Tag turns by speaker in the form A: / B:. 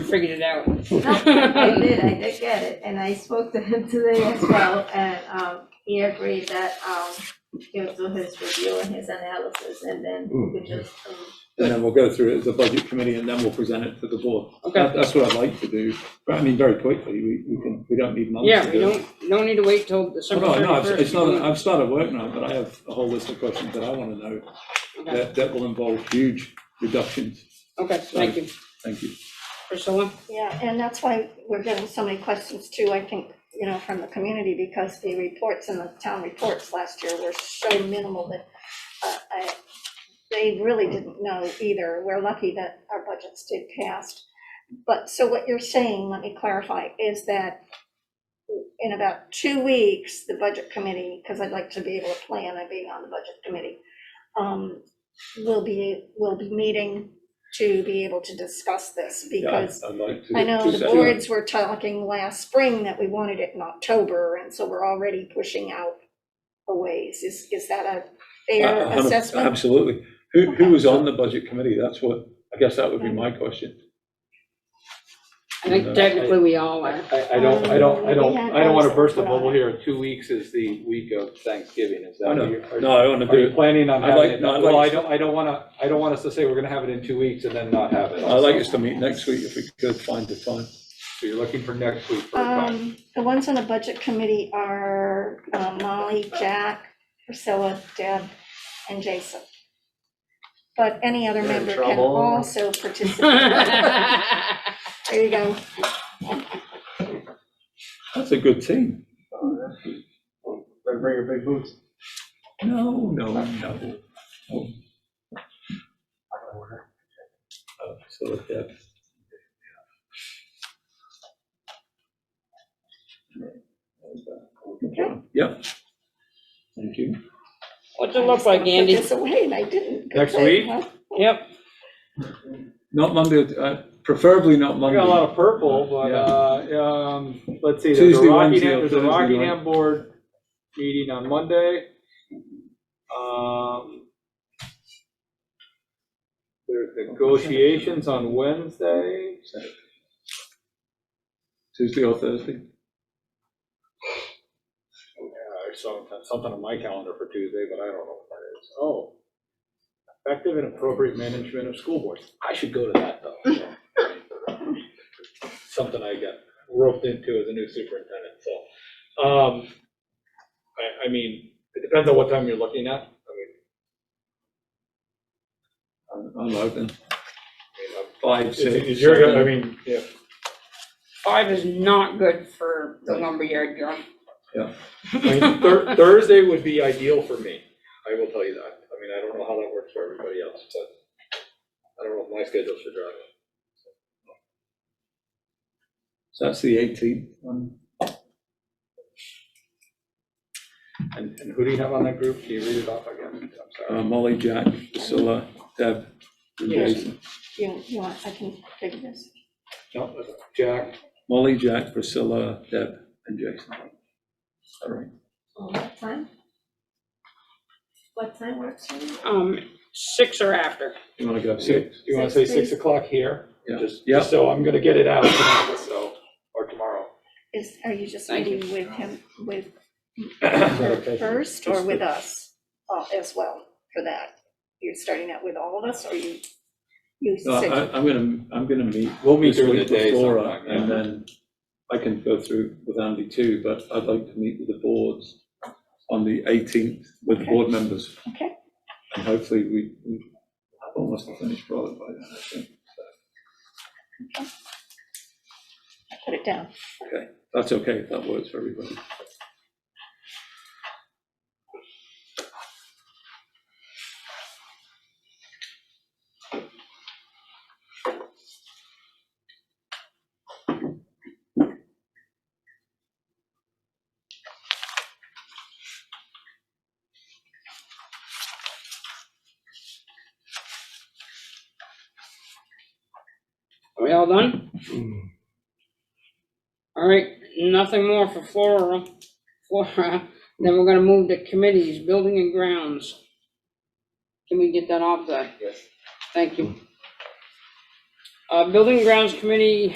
A: figured it out.
B: I did, I did get it, and I spoke to him today as well, and, um, he agreed that, um, he'll do his review and his analysis, and then we could just, um,
C: And then we'll go through it as a budget committee and then we'll present it to the board.
A: Okay,
C: That, that's what I'd like to do, but I mean, very quickly, we, we can, we don't need months
A: yeah,
C: to
A: we
C: do it.
A: don't, no need to wait till December
C: No, Oh, no, I've- it's not,
A: 31st.
C: I've started work now, but I have a whole list of questions that I want to know,
A: Okay,
C: that, that will involve huge reductions.
A: Okay, thank you.
C: Thank you.
A: Priscilla?
D: Yeah, and that's why we're getting so many questions too, I think, you know, from the community, because the reports and the town reports last year were so minimal that uh, I- they really didn't know either. We're lucky that our budgets did pass. But, so what you're saying, let me clarify, is that in about two weeks, the budget committee, because I'd like to be able to plan on being on the budget committee, um, will be, will be meeting to be able to discuss this, because
C: I'd like to.
D: I know the
C: Two-
D: boards were talking last spring that we wanted it in October, and so we're already pushing out a ways. Is, is that a
C: A- a
D: fair
C: Uh, hundred-
D: assessment?
C: Absolutely. Who, who
D: Okay.
C: was on the budget committee? That's what, I guess that would be my question.
A: I
C: Uh,
A: think technically we all are.
E: I, I don't, I don't, I
D: Um, we had
E: don't, I don't want to
D: those
E: burst the
D: put on
E: bubble
D: it.
E: here. in Two weeks is the week of Thanksgiving, is
C: I
E: that
C: know.
E: what you're? are-
C: Oh, No, I want to
E: Are
C: do,
E: you
C: it.
E: planning on
C: I'd
E: having
C: like-
E: it?
C: no, I'd
E: Well,
C: like
E: I don't, I don't want to, I don't want us to say we're going to have it in two weeks and then not have it.
C: I'd like us to meet next week if we could find the time.
E: So you're looking for next week for a time.
D: Um, the ones on the budget committee are uh, Molly, Jack, Priscilla, Deb, and Jason. But any other
F: You're in
D: member can
F: trouble.
D: also participate. There you go.
C: That's a good team.
F: Better bring your big boots.
C: No, no, no. Oh, So with that. Yeah. Thank you.
A: What's it look like,
D: I
A: Andy?
D: just put this away, and I didn't. Good
E: Next
D: thing,
E: week?
D: huh?
A: Yep,
C: Not Monday, uh, preferably not
E: I
C: Monday.
E: got a lot of purple, but,
C: Yeah.
E: uh, um, let's see, there's a
C: Tuesday, Wednesday,
E: Rockingham,
C: or
E: there's a
C: Thursday, right?
E: Rockingham board meeting on Monday. Um, There's negotiations on Wednesday.
C: Tuesday or Thursday.
E: Yeah, I saw something on my calendar for Tuesday, but I don't know what that is. Oh. Effective and appropriate management of school boards. I should go to that, though. Something I got roped into as a new superintendent, so. um, I, I mean, it depends on what time you're looking at. I mean,
C: I'm I'm open.
E: I mean, I'm-
C: Five,
E: Is,
C: six.
E: is your, go- I
C: seven.
E: mean, yeah,
A: five is not good for the lumberyard yard.
E: I mean, Thur- Thursday would be ideal for me. I will tell you that. I mean, I don't know how that works for everybody else, but I don't know if my schedule should drive it.
C: So that's the eighteenth one.
E: And, and who do you have on that group? Can you read it off again? I'm
C: Uh,
E: sorry.
C: Molly, Jack, Priscilla, Deb, and
A: Yes.
C: Jason.
D: You, you want, I can figure this.
E: No, that's Jack,
C: Molly, Jack, Priscilla, Deb, and Jason. All right.
B: What time? What time works for you?
A: Um, six or after.
C: You want to go
E: do
C: six?
E: you want to say
B: Six, please.
E: 6 o'clock here?
C: Yeah.
E: Just,
C: Yeah.
E: just so I'm going to get it out tonight, so, or tomorrow.
D: Is, are you just
A: Thank you.
D: meeting with him, with
E: Is that
D: her
E: okay?
D: first
C: Just
D: or
C: the-
D: with us uh, as well for that? You're starting out with all of us or you, you
C: No,
D: said,
C: Uh, I, I'm going to, I'm going to meet.
E: We'll meet
C: this
E: during the
C: week
E: day
C: with Laura,
E: sometime, yeah.
C: And then I can go through with Andy too, but I'd like to meet with the boards on the eighteenth with the
D: Okay.
C: board members.
D: Okay.
C: And hopefully we, we have almost a finished product by then, I think.
D: put it down.
C: That's okay, if that works for everybody.
A: Are we all done? All right, nothing more for Flora, Flora, then we're gonna move to committees, building and grounds. Can we get that off there?
E: Yes.
A: Thank you. Uh, building and grounds committee